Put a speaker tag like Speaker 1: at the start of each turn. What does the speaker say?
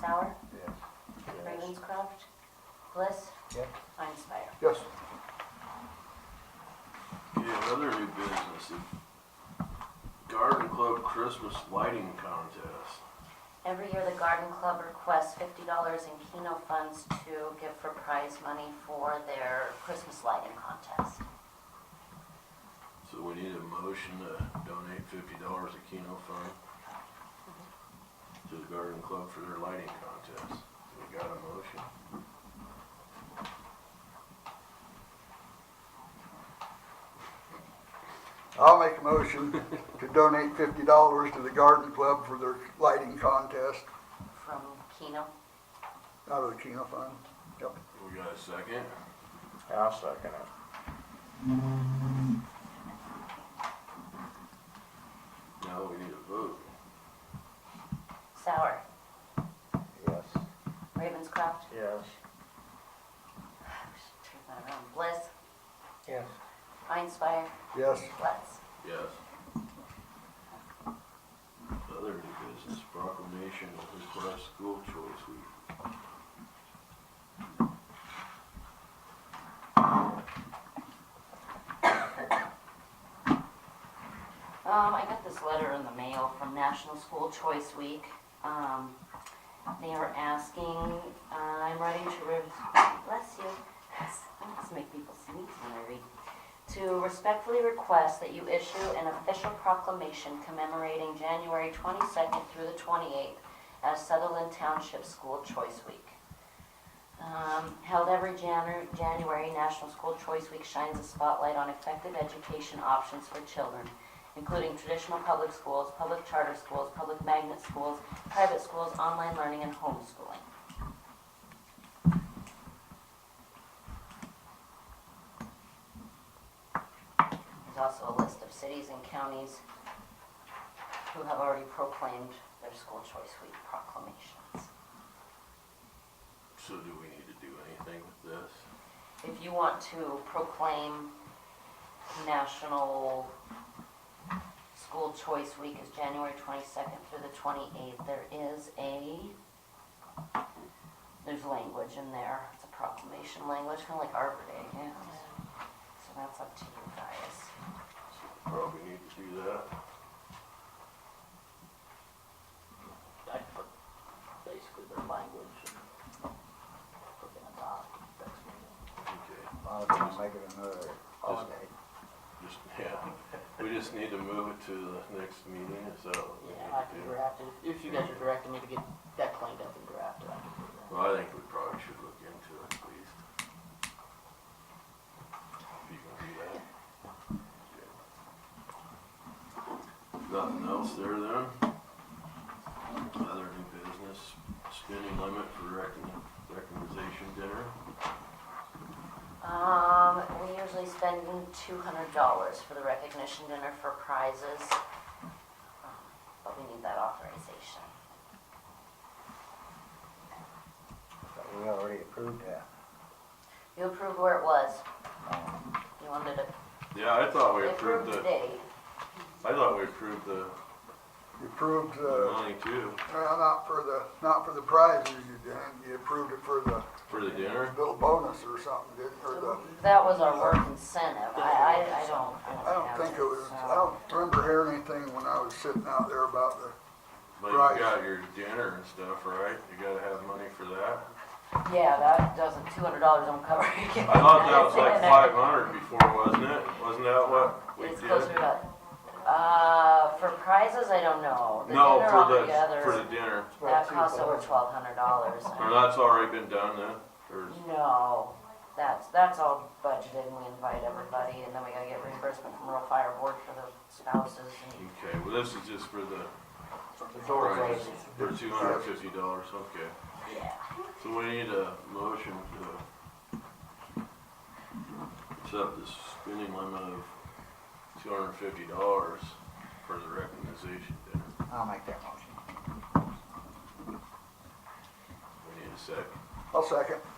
Speaker 1: Sauer,
Speaker 2: Yes.
Speaker 1: Ravenscroft, Bliss,
Speaker 2: Yep.
Speaker 1: Einspire.
Speaker 2: Yes.
Speaker 3: Yeah, another new business, the Garden Club Christmas Lighting Contest.
Speaker 1: Every year, the Garden Club requests fifty dollars in Keno funds to give for prize money for their Christmas lighting contest.
Speaker 3: So we need a motion to donate fifty dollars to Keno Fund to the Garden Club for their lighting contest. We got a motion.
Speaker 2: I'll make a motion to donate fifty dollars to the garden club for their lighting contest
Speaker 1: From Keno,
Speaker 2: out of the Keno Fund. Yep.
Speaker 3: We got a second?
Speaker 4: I'll second it.
Speaker 3: Now we need a vote.
Speaker 1: Sauer,
Speaker 4: Yes.
Speaker 1: Ravenscroft,
Speaker 4: Yes.
Speaker 1: turn that around, Bliss,
Speaker 4: Yes.
Speaker 1: Einspire,
Speaker 2: Yes.
Speaker 1: Lutz.
Speaker 3: Yes. Other new business, proclamation of request school choice week.
Speaker 1: Um, I got this letter in the mail from National School Choice Week. Um, they are asking, uh, I'm writing to, re- bless you, Let's make people sneeze when I read. To respectfully request that you issue an official proclamation commemorating January twenty-second through the twenty-eighth as Sutherland Township School Choice Week. Um, held every Janu- January, National School Choice Week shines a spotlight on effective education options for children including traditional public schools, public charter schools, public magnet schools, private schools, online learning, and homeschooling. There's also a list of cities and counties who have already proclaimed their school choice week proclamations.
Speaker 3: So do we need to do anything with this?
Speaker 1: If you want to proclaim National School Choice Week is January 22nd through the 28th, there is a, there's language in there, it's a proclamation language, kind of like Arbor Day, yeah. So that's up to you guys.
Speaker 3: Probably need to do that.
Speaker 5: I put basically their language and put in a doc, that's what it
Speaker 3: Okay.
Speaker 4: I'll just make it another holiday.
Speaker 3: Just, yeah, we just need to move it to the next meeting, is that what we
Speaker 5: is.
Speaker 3: need
Speaker 5: Yeah, I
Speaker 3: to
Speaker 5: can
Speaker 3: do?
Speaker 5: draft it, if you guys are directing me to get that cleaned up and drafted, I can do that.
Speaker 3: Well, I think we probably should look into it at least. If you can do that. Okay. Nothing else there then? Other new business, spending limit for recon- recognition dinner?
Speaker 1: Um, we usually spend $200 for the recognition dinner for prizes, um, but we need that authorization.
Speaker 4: But we already approved that.
Speaker 1: You approved where it was,
Speaker 4: Um,
Speaker 1: you wanted to
Speaker 3: Yeah, I thought we
Speaker 1: They
Speaker 3: approved
Speaker 1: approved
Speaker 3: the,
Speaker 1: today.
Speaker 3: I thought we approved the
Speaker 2: You approved,
Speaker 3: the
Speaker 2: uh,
Speaker 3: money too,
Speaker 2: well, not for the, not for the prizes you didn't. You approved it for the
Speaker 3: for the dinner.
Speaker 2: little bonus or something, didn't, or the,
Speaker 1: That was our work incentive. I, I, I don't,
Speaker 2: I don't think it was, I don't remember hearing anything when I was sitting out there about the,
Speaker 3: But you
Speaker 2: Right.
Speaker 3: got your dinner and stuff, right? You gotta have money for that.
Speaker 1: Yeah, that doesn't, two hundred dollars don't cover it.
Speaker 3: I thought that was like five hundred before, wasn't it? Wasn't that what we
Speaker 1: It's
Speaker 3: did?
Speaker 1: closer to, uh, for prizes, I don't know. The
Speaker 3: No,
Speaker 1: dinner
Speaker 3: for the,
Speaker 1: altogether,
Speaker 3: for the dinner.
Speaker 1: That costs over twelve hundred dollars.
Speaker 3: Or that's already been done then? Or,
Speaker 1: No, that's, that's all budgeted and we invite everybody and then we gotta get reimbursement from rural fire board for the spouses and.
Speaker 3: okay, well, this is just for the
Speaker 1: always-
Speaker 3: prizes, for two hundred and fifty dollars, okay.
Speaker 1: Yeah.
Speaker 3: So we need a motion to accept the spending limit of two hundred and fifty dollars for the recognition dinner.
Speaker 4: I'll make that motion.
Speaker 3: We need a second.
Speaker 2: I'll second.